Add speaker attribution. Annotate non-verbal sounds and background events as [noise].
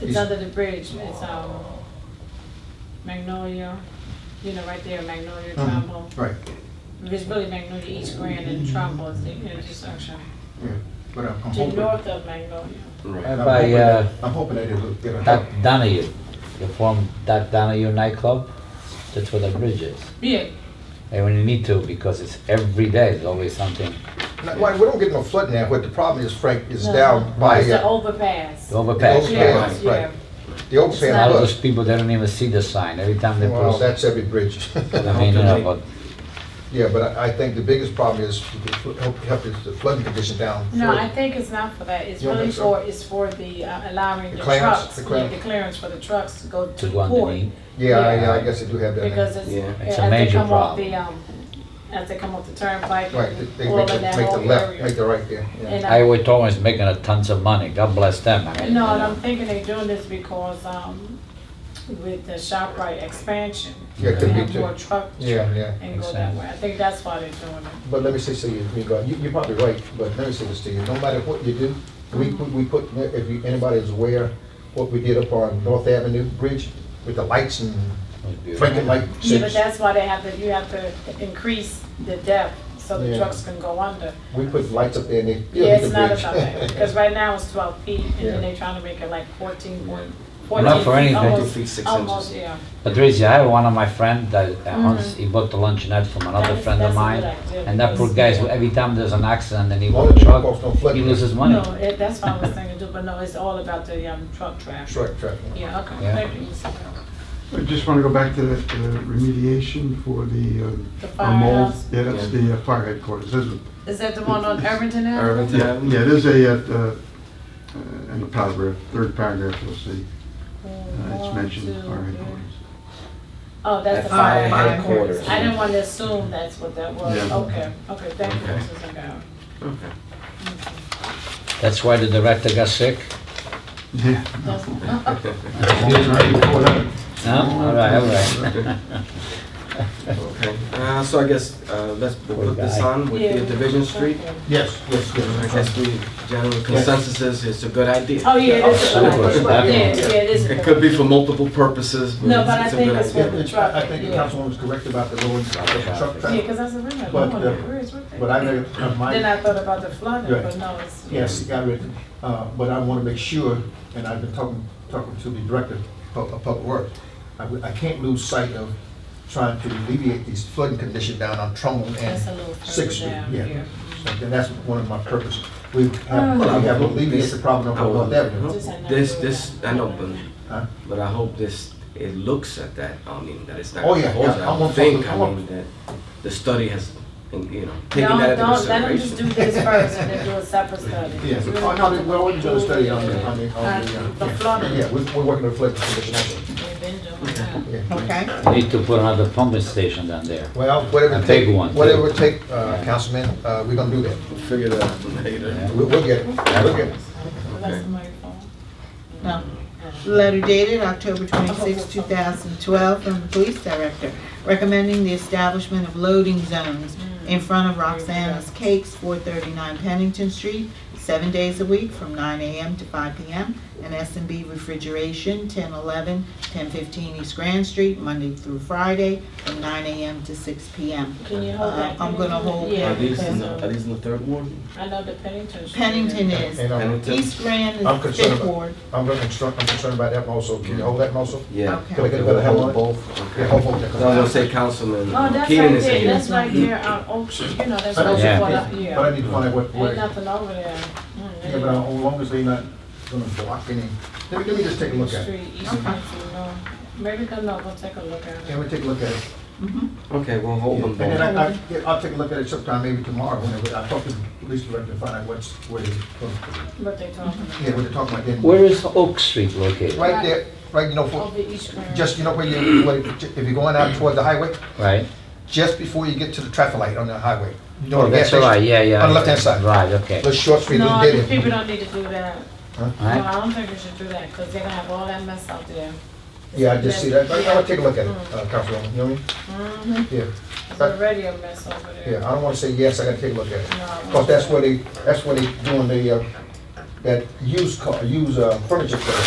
Speaker 1: It's
Speaker 2: Is-
Speaker 1: under the bridge, it's, um, Magnolia, you know, right there, Magnolia,
Speaker 2: Mhm.
Speaker 1: Trumbull.
Speaker 2: Right,
Speaker 1: It's really Magnolia, East Grand and Trumbull is the intersection,
Speaker 2: yeah, but I'm I'm
Speaker 1: to
Speaker 2: hoping.
Speaker 1: north of Magnolia.
Speaker 3: Right.
Speaker 2: I'm
Speaker 4: By,
Speaker 2: hoping-
Speaker 4: uh,
Speaker 2: I'm hoping that it'll get a help.
Speaker 4: Doc Donahue, you form Doc Donahue nightclub, that's where the bridge is.
Speaker 1: Yeah,
Speaker 4: And when you need to, because it's every day, there's always something.
Speaker 2: Now, Why, we don't get no flooding there, but the problem is Frank is
Speaker 1: No.
Speaker 2: down by
Speaker 1: it's the
Speaker 2: uh,
Speaker 1: overpass.
Speaker 4: The overpass,
Speaker 2: Yeah,
Speaker 4: right?
Speaker 1: Yes,
Speaker 2: right.
Speaker 1: yeah.
Speaker 2: the old
Speaker 4: A lot
Speaker 2: fan
Speaker 4: of those
Speaker 2: bus.
Speaker 4: people, they don't even see the sign, every time they
Speaker 2: Well,
Speaker 4: post.
Speaker 2: that's every bridge.
Speaker 4: I mean, you know, but
Speaker 2: [laughs] Yeah, but I, I think the biggest problem is, the fl- help, help is the flooding condition down.
Speaker 1: No,
Speaker 2: further.
Speaker 1: I think it's not for that, it's
Speaker 2: You don't
Speaker 1: really
Speaker 2: think so?
Speaker 1: for, it's for the, uh, allowing
Speaker 2: The
Speaker 1: the
Speaker 2: clearance,
Speaker 1: trucks,
Speaker 2: the
Speaker 1: yeah,
Speaker 2: clearance.
Speaker 1: the clearance for the trucks to go
Speaker 4: to
Speaker 1: to
Speaker 4: go
Speaker 1: port.
Speaker 4: underneath,
Speaker 2: Yeah, I-
Speaker 1: yeah.
Speaker 2: yeah, I guess they do have that. now.
Speaker 1: Because it's,
Speaker 3: Yeah.
Speaker 4: It's a
Speaker 1: as they
Speaker 4: major
Speaker 1: come off
Speaker 4: problem.
Speaker 1: the, um, as they come off the turnpike, all
Speaker 2: Right, they-
Speaker 1: of
Speaker 2: they make the,
Speaker 1: that
Speaker 2: make the
Speaker 1: whole
Speaker 2: left, make
Speaker 1: area.
Speaker 2: the right there, yeah.
Speaker 1: And I-
Speaker 4: Iowa Tom is making a tons of money, God bless them, I mean.
Speaker 1: No,
Speaker 4: you
Speaker 1: and
Speaker 4: know.
Speaker 1: I'm thinking they're doing this because, um, with the ShopRite expansion,
Speaker 2: Yeah, it
Speaker 1: they
Speaker 2: could be
Speaker 1: have
Speaker 2: too.
Speaker 1: more truck
Speaker 2: Yeah, yeah.
Speaker 1: and go
Speaker 4: Makes
Speaker 1: that
Speaker 4: sense.
Speaker 1: way. I think that's why they're doing it.
Speaker 2: But let me say something, you, you- you're probably right, but let me say this to you, no matter what you do, we, we we put, if you- anybody is aware, what we did up on North Avenue Bridge with the lights and
Speaker 4: It was beautiful.
Speaker 2: Franklin light.
Speaker 1: Yeah, but
Speaker 2: six.
Speaker 1: that's why they have to, you have to increase the depth so the
Speaker 2: Yeah.
Speaker 1: trucks can go under.
Speaker 2: We put lights up there and they.
Speaker 1: Yeah, it's
Speaker 2: the
Speaker 1: not
Speaker 2: bridge.
Speaker 1: about that, because right now it's twelve feet, and
Speaker 2: Yeah.
Speaker 1: then they're trying to make it like fourteen point.
Speaker 4: Not for anything.
Speaker 1: Almost,
Speaker 3: 14 feet,
Speaker 1: almost,
Speaker 3: six inches.
Speaker 1: yeah.
Speaker 4: Patricia, I have one of my friend that, uh, once, he bought the luncheonette from another
Speaker 1: That's-
Speaker 4: friend of
Speaker 1: Mm-hmm. that's a
Speaker 4: mine.
Speaker 1: good idea,
Speaker 4: And that poor
Speaker 1: because-
Speaker 4: guy, is- every time there's an accident and he
Speaker 2: All
Speaker 4: wants
Speaker 2: the
Speaker 4: a
Speaker 2: truck off, no
Speaker 4: truck, he
Speaker 2: flooding.
Speaker 4: loses money.
Speaker 1: No, it- that's what I was thinking too, but no, it's all about the, um, truck traffic.
Speaker 2: [laughs] Truck traffic.
Speaker 1: Yeah, okay,
Speaker 4: Yeah.
Speaker 1: thank you. Mr.
Speaker 5: I just want to go back to the the remediation for the um,
Speaker 1: The
Speaker 5: uh, mold.
Speaker 1: firehouse.
Speaker 5: Yeah, that's
Speaker 3: Yeah.
Speaker 5: the uh, fire headquarters, isn't it?
Speaker 1: Is that the one on Irvington Ave?
Speaker 3: Irvington
Speaker 5: Yeah,
Speaker 3: Avenue.
Speaker 5: yeah, there's a, uh, uh, in the paragraph, third paragraph, you'll see, uh, it's
Speaker 1: One,
Speaker 5: mentioned,
Speaker 1: two,
Speaker 5: fire
Speaker 1: three.
Speaker 5: headquarters.
Speaker 1: Oh, that's the
Speaker 3: That's
Speaker 1: fire
Speaker 3: fire
Speaker 1: headquarters.
Speaker 3: headquarters.
Speaker 1: I didn't want to assume that's what that was.
Speaker 5: Yeah.
Speaker 1: Okay, okay, thank you,
Speaker 3: Okay.
Speaker 1: Mrs. Zagara.
Speaker 3: Okay.
Speaker 4: That's why the director got sick?
Speaker 5: Yeah.
Speaker 2: [laughs]
Speaker 1: That's-
Speaker 4: No? All right, all right.
Speaker 3: Okay. Uh, so I guess, uh, let's
Speaker 4: Poor
Speaker 3: put this
Speaker 4: guy.
Speaker 3: on with the Division Street.
Speaker 2: Yes, yes,
Speaker 3: I
Speaker 2: yes.
Speaker 3: guess we, general consensus is it's a good idea.
Speaker 1: Oh, yeah, this is,
Speaker 4: Oh,
Speaker 1: yeah,
Speaker 4: super,
Speaker 1: yeah,
Speaker 2: definitely.
Speaker 1: this is.
Speaker 3: It could be for multiple purposes, but
Speaker 1: No, but I
Speaker 3: it's it's a
Speaker 1: think
Speaker 3: good
Speaker 1: it's
Speaker 3: idea.
Speaker 1: what-
Speaker 2: Yeah, I I think the councilwoman was correct about the lower truck
Speaker 1: Yeah,
Speaker 2: traffic,
Speaker 1: because I said, wait a minute,
Speaker 2: But,
Speaker 1: no,
Speaker 2: uh,
Speaker 1: oh, where is what they-
Speaker 2: but I know, my.
Speaker 1: Then I thought about the flooding,
Speaker 2: Right.
Speaker 1: but no, it's.
Speaker 2: Yes, got it, uh, but I want to make sure, and I've been talking, talking to the director of of Public Works, I, w- I can't lose sight of trying to alleviate these flooding conditions down on Trumbull
Speaker 1: That's a
Speaker 2: and
Speaker 1: little
Speaker 2: Sixth
Speaker 1: further
Speaker 2: Street,
Speaker 1: down
Speaker 2: yeah.
Speaker 1: here.
Speaker 2: So, And that's one of my purposes. We have,
Speaker 1: Uh.
Speaker 2: we have alleviated the problem
Speaker 3: I
Speaker 2: on
Speaker 3: will-
Speaker 2: North Avenue.
Speaker 1: Just another
Speaker 3: This,
Speaker 1: way
Speaker 3: this,
Speaker 1: down.
Speaker 3: I know, but,
Speaker 2: Huh?
Speaker 3: but I hope this, it looks at that, I mean, that it's not.
Speaker 2: Oh, yeah,
Speaker 3: proposed.
Speaker 2: yeah, I
Speaker 3: I
Speaker 2: want
Speaker 3: think,
Speaker 2: something-
Speaker 3: I
Speaker 2: I want-
Speaker 3: mean, that the study has, you know, taken
Speaker 1: Don't,
Speaker 3: that into
Speaker 1: don't, let them just do
Speaker 3: consideration.
Speaker 1: this first and then do
Speaker 3: [laughs]
Speaker 1: a separate study.
Speaker 2: Yeah, oh, no, we- we're already doing a study on the, on the, on the,
Speaker 1: Uh,
Speaker 2: uh,
Speaker 1: The flooding.
Speaker 2: yeah, we're, we're working on flooding condition.
Speaker 1: We've been doing that.
Speaker 2: yeah.
Speaker 6: Okay,
Speaker 4: [laughs] You Need to put another pumping station down there.
Speaker 2: Well, whatever it
Speaker 4: A big
Speaker 2: take,
Speaker 4: one, too.
Speaker 2: whatever it take, uh, Councilman, uh, we're gonna do that.
Speaker 3: We'll Figure that out later.
Speaker 2: We'll, we'll get it, we'll get it.
Speaker 1: That's the microphone.
Speaker 6: no. Letter dated October 26, 2012, from the police director recommending the establishment of loading zones in front of Roxana's Cakes, 439 Pennington Street, seven days a week from 9 a.m. to 5 p.m., and s and b Refrigeration, 1011, 1015 East Grand Street, Monday through Friday, from 9 a.m. to 6 p.m.
Speaker 1: Can you hold that?
Speaker 6: Uh, I'm gonna hold
Speaker 1: Yeah,
Speaker 3: Are these, in
Speaker 1: because,
Speaker 3: the- are
Speaker 1: um,
Speaker 3: these in the third ward?
Speaker 1: I know the Pennington. Street.
Speaker 6: Pennington is,
Speaker 2: And, um,
Speaker 3: Pennington?
Speaker 6: East Grand
Speaker 2: I'm
Speaker 6: is
Speaker 2: concerned
Speaker 6: Fifth
Speaker 2: about-
Speaker 6: Ward.
Speaker 2: I'm really concerned, I'm concerned about that also.
Speaker 4: Mm-hmm.
Speaker 2: Can you hold that also?
Speaker 3: Yeah.
Speaker 6: Okay.
Speaker 2: Can I get a better help on both? Yeah, hold on.
Speaker 3: I was gonna say Councilman
Speaker 1: Oh, that's
Speaker 3: Keenan
Speaker 1: right
Speaker 3: is
Speaker 1: there,
Speaker 3: here.
Speaker 1: that's right there on Oak Street, you know, that's
Speaker 2: I know
Speaker 1: right
Speaker 2: it's
Speaker 1: there.
Speaker 4: Yeah.
Speaker 1: for the- Yeah,
Speaker 2: important, But I need to find out what, where,
Speaker 1: ain't
Speaker 2: yeah,
Speaker 1: nothing over there. Mm,
Speaker 2: but uh, as long as they not gonna block any, let me, let me just take a look at it.
Speaker 1: Street, East Pennington, no, maybe come up, we'll take a look at
Speaker 2: Can
Speaker 1: it.
Speaker 2: we take a look at it?
Speaker 3: Okay, we'll hold them
Speaker 2: And then
Speaker 3: both.
Speaker 2: I, I, yeah, I'll take a look at it sometime, maybe tomorrow, whenever, I'll talk to the police director and find out what's, where, they-
Speaker 1: What they talking about.
Speaker 2: yeah, what they're talking about. then.
Speaker 4: Where is Oak Street located?
Speaker 2: Right there, right, you know, for,
Speaker 1: Over East Grand.
Speaker 2: just, you know, where you, where- if you're going out toward the highway,
Speaker 4: Right?
Speaker 2: just before you get to the traffic light on the highway. You know,
Speaker 4: Oh,
Speaker 2: the gas
Speaker 4: that's all right,
Speaker 2: station,
Speaker 4: yeah, yeah.
Speaker 2: On the left-hand side.
Speaker 4: Right, okay.
Speaker 2: The short street,
Speaker 1: No,
Speaker 2: we
Speaker 1: I
Speaker 2: did
Speaker 1: think people
Speaker 2: it.
Speaker 1: don't need to do that. No,
Speaker 4: Right?
Speaker 1: I don't think we should do that, because they're gonna have all that mess out there.
Speaker 2: Yeah, I just see that, but I'll take a look at it, uh, Councilwoman, you know what I mean? Yeah.
Speaker 1: It's already a Mm-hmm. mess over there.
Speaker 2: Yeah, I don't wanna say yes, I gotta take a look at it.
Speaker 1: No.
Speaker 2: Cause that's where they, that's where they doing the, uh, that used car, used, uh, furniture sale.